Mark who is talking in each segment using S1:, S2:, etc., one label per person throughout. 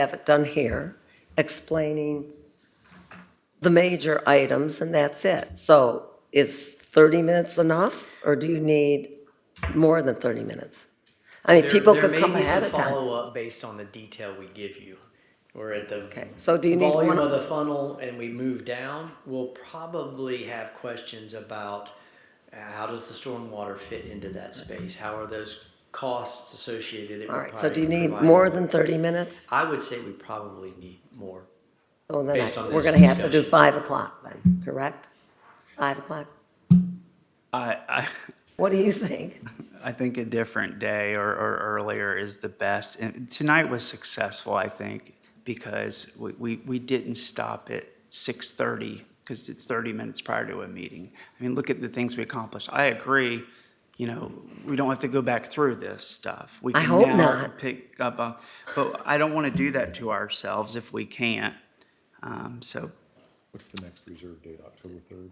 S1: have it done here, explaining the major items, and that's it. So is 30 minutes enough, or do you need more than 30 minutes? I mean,
S2: There-
S1: people
S2: there
S1: could
S2: may
S1: come
S2: be some
S1: ahead of time.
S2: Follow-up based on the detail we give you. We're at the
S1: Okay, so do you need
S2: volume
S1: one-
S2: of the funnel and we move down. We'll probably have questions about uh, how does the stormwater fit into that space? How are those costs associated that we
S1: All right, so do you
S2: probably
S1: need
S2: provide?
S1: more than 30 minutes?
S2: I would say we probably need more.
S1: So then
S2: Based
S1: I-
S2: on
S1: we're
S2: this
S1: going to have to do
S2: discussion.
S1: 5 o'clock then, correct? 5 o'clock?
S3: I, I,
S1: What do you think?
S3: I think a different day or, or earlier is the best. And tonight was successful, I think, because we, we, we didn't stop at 6:30 because it's 30 minutes prior to a meeting. I mean, look at the things we accomplished. I agree, you know, we don't have to go back through this stuff. We
S1: I
S3: can
S1: hope
S3: now
S1: not.
S3: Pick up, on- but I don't want to do that to ourselves if we can't. Um, so
S4: What's the next reserve date, October 3rd?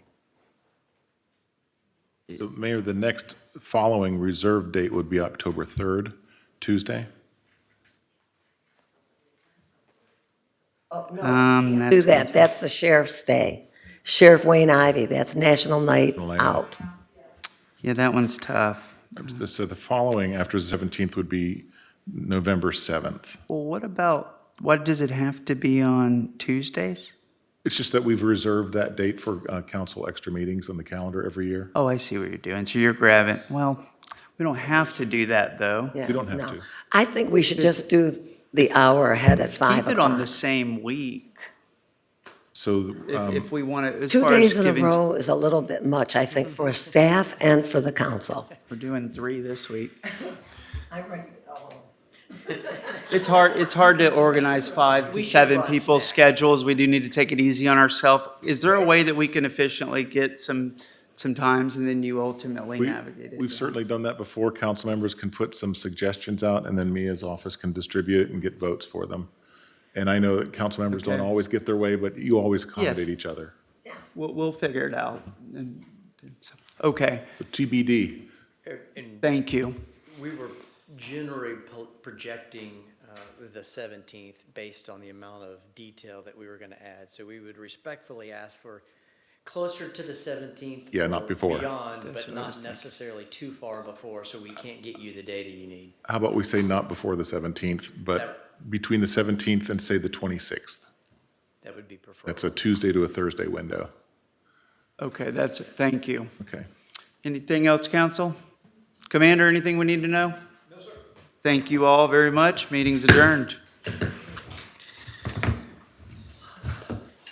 S4: So Mayor, the next following reserve date would be October 3rd, Tuesday?
S3: um,
S1: Do
S3: that's
S1: that, that's the sheriff's day. Sheriff Wayne Ivy, that's National Night
S4: Night
S1: Out.
S4: Out.
S3: yeah, that one's tough.
S4: So the following after the 17th would be November 7th.
S3: Well, what about, what does it have to be on Tuesdays?
S4: It's just that we've reserved that date for uh, council extra meetings on the calendar every year.
S3: Oh, I see what you're doing. So you're grabbing, well, we don't have to do that, though.
S1: Yeah,
S4: You don't have
S1: no.
S4: to.
S1: I think we should just do the hour ahead at 5
S3: Keep it on
S1: o'clock.
S3: the same week,
S4: So
S3: if,
S4: um,
S3: if we want to, as
S1: Two
S3: far as
S1: days in a
S3: giving, we're
S1: row is a little bit much, I think, for staff and for the council.
S3: doing three this week. It's hard, it's hard to organize five to seven people's schedules. We do need to take it easy on ourselves. Is there a way that we can efficiently get some, some times and then you ultimately
S4: we-
S3: navigate it?
S4: we've certainly done that before. Council members can put some suggestions out, and then Mia's office can distribute and get votes for them. And I know that council members don't
S3: Okay.
S4: always get their way, but you always accommodate each other.
S3: We'll, we'll figure it out. And- and so- Okay,
S4: So TBD.
S2: And
S3: thank you.
S2: we were generally po- projecting uh, the 17th based on the amount of detail that we were going to add. So we would respectfully ask for closer to the 17th.
S4: Yeah, not
S2: or
S4: before.
S2: Beyond, but
S3: what I was
S2: not
S3: thinking.
S2: necessarily too far before, so we can't get you the data you need.
S4: How about we say not before the 17th, but between the 17th and say the 26th?
S2: That would be preferred.
S4: That's a Tuesday to a Thursday window.
S3: Okay, that's it. Thank you.
S4: Okay.
S3: Anything else, council? Commander, anything we need to know? No, sir. Thank you all very much. Meeting's adjourned.